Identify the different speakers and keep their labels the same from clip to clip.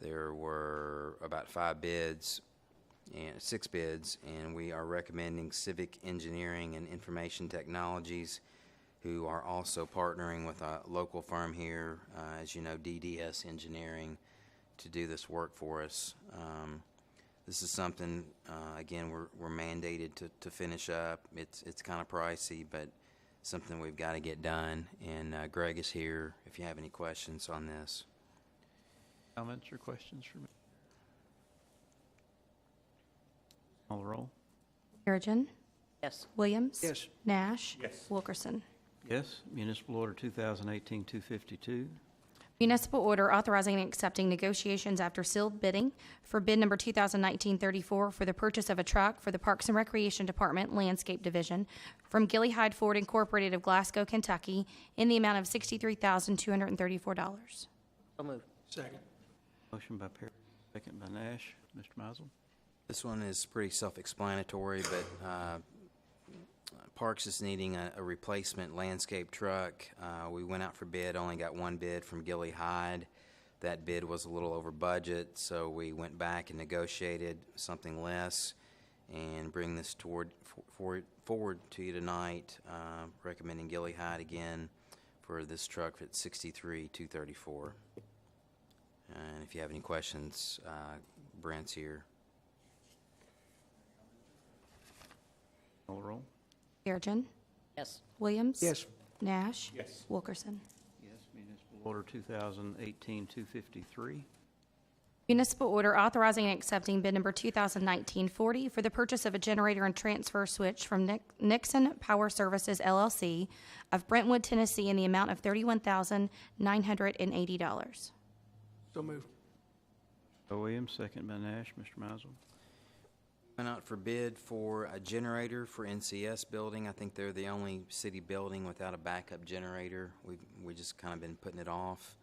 Speaker 1: There were about five bids and six bids, and we are recommending Civic Engineering and Information Technologies, who are also partnering with a local firm here, uh, as you know, DDS Engineering, to do this work for us. Um, this is something, uh, again, we're, we're mandated to, to finish up. It's, it's kind of pricey, but something we've got to get done. And uh, Greg is here if you have any questions on this.
Speaker 2: Comments or questions for me? Call the roll.
Speaker 3: Perigin.
Speaker 4: Yes.
Speaker 3: Williams.
Speaker 5: Yes.
Speaker 3: Nash.
Speaker 5: Yes.
Speaker 3: Wilkerson.
Speaker 2: Yes, municipal order 2018-252.
Speaker 3: Municipal order authorizing and accepting negotiations after sealed bidding for bid number 2019-34 for the purchase of a truck for the Parks and Recreation Department Landscape Division from Gilly Hyde Ford Incorporated of Glasgow, Kentucky, in the amount of $63,234.
Speaker 4: So moved.
Speaker 5: Second.
Speaker 2: Motion by Perry, second by Nash. Mr. Mizel?
Speaker 1: This one is pretty self-explanatory, but uh, Parks is needing a a replacement landscape truck. Uh, We went out for bid, only got one bid from Gilly Hyde. That bid was a little over budget, so we went back and negotiated something less and bring this toward, for- for- forward to you tonight, uh, recommending Gilly Hyde again for this truck at sixty-three, two thirty-four. And if you have any questions, uh, Brent's here.
Speaker 2: Call the roll.
Speaker 3: Perigin.
Speaker 4: Yes.
Speaker 3: Williams.
Speaker 5: Yes.
Speaker 3: Nash.
Speaker 5: Yes.
Speaker 3: Wilkerson.
Speaker 2: Yes, municipal order 2018-253.
Speaker 3: Municipal order authorizing and accepting bid number 2019-40 for the purchase of a generator and transfer switch from Nic- Nixon Power Services LLC of Brentwood, Tennessee, in the amount of $31,980.
Speaker 5: So moved.
Speaker 2: By Williams, second by Nash. Mr. Mizel?
Speaker 1: Went out for bid for a generator for NCS building. I think they're the only city building without a backup generator. We've, we just kind of been putting it off.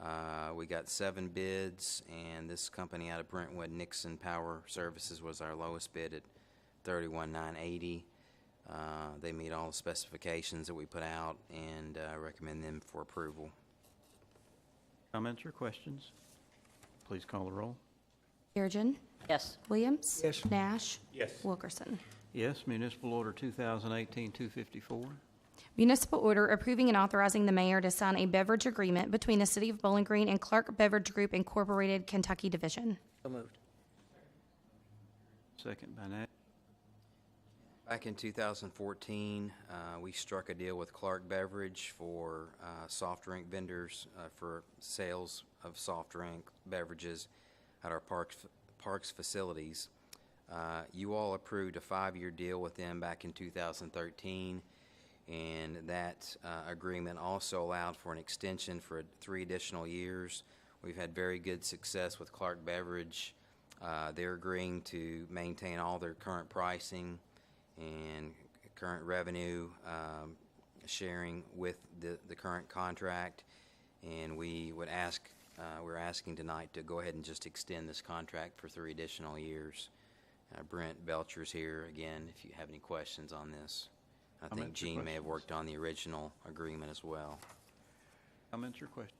Speaker 1: Uh, we got seven bids, and this company out of Brentwood, Nixon Power Services, was our lowest bid at thirty-one nine eighty. Uh, they meet all the specifications that we put out, and, uh, recommend them for approval.
Speaker 2: Comments or questions? Please call the roll.
Speaker 3: Perigin.
Speaker 4: Yes.
Speaker 3: Williams.
Speaker 5: Yes.
Speaker 3: Nash.
Speaker 5: Yes.
Speaker 3: Wilkerson.
Speaker 2: Yes, municipal order 2018-254.
Speaker 3: Municipal order approving and authorizing the mayor to sign a beverage agreement between the City of Bowling Green and Clark Beverage Group Incorporated Kentucky Division.
Speaker 4: So moved.
Speaker 2: Second by Nash.
Speaker 1: Back in 2014, uh, we struck a deal with Clark Beverage for uh, soft drink vendors uh, for sales of soft drink beverages at our parks parks facilities. Uh, You all approved a five-year deal with them back in 2013, and that uh, agreement also allowed for an extension for three additional years. We've had very good success with Clark Beverage. Uh, They're agreeing to maintain all their current pricing and current revenue um, sharing with the, the current contract. And we would ask, uh, we're asking tonight to go ahead and just extend this contract for three additional years. Uh, Brent Belcher's here again, if you have any questions on this. I think
Speaker 2: Comments or
Speaker 1: Gene may have
Speaker 2: questions?
Speaker 1: worked on the original agreement as well.
Speaker 2: Comments or questions?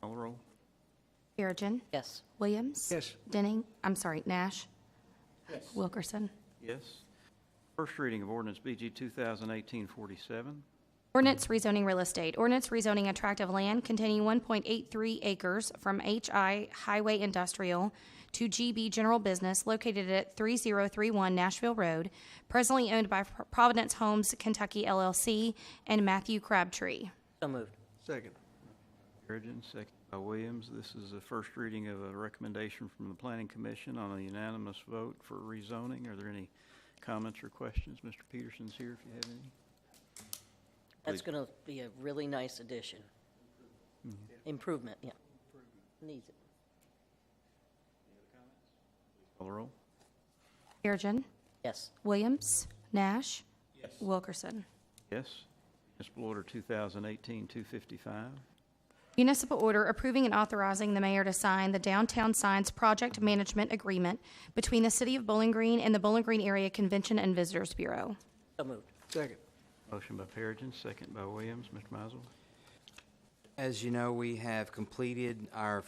Speaker 2: Call the roll.
Speaker 3: Perigin.
Speaker 4: Yes.
Speaker 3: Williams.
Speaker 5: Yes.
Speaker 3: Denning, I'm sorry, Nash. Wilkerson.
Speaker 2: Yes. First reading of ordinance BG 2018-47.
Speaker 3: Ordinance rezoning real estate. Ordinance rezoning a tract of land containing 1.83 acres from HI Highway Industrial to GB General Business located at 3031 Nashville Road, presently owned by Providence Homes Kentucky LLC and Matthew Crabtree.
Speaker 4: So moved.
Speaker 5: Second.
Speaker 2: Perigin, second by Williams. This is the first reading of a recommendation from the Planning Commission on a unanimous vote for rezoning. Are there any comments or questions? Mr. Peterson's here if you have any.
Speaker 4: That's going to be a really nice addition. Improvement, yeah. Needs it.
Speaker 2: Call the roll.
Speaker 3: Perigin.
Speaker 4: Yes.
Speaker 3: Williams. Nash. Wilkerson.
Speaker 2: Yes. Municipal Order 2018-255.
Speaker 3: Municipal order approving and authorizing the mayor to sign the Downtown Signs Project Management Agreement between the City of Bowling Green and the Bowling Green Area Convention and Visitors Bureau.
Speaker 4: So moved.
Speaker 5: Second.
Speaker 2: Motion by Perigin, second by Williams. Mr. Mizel.
Speaker 1: As you know, we have completed our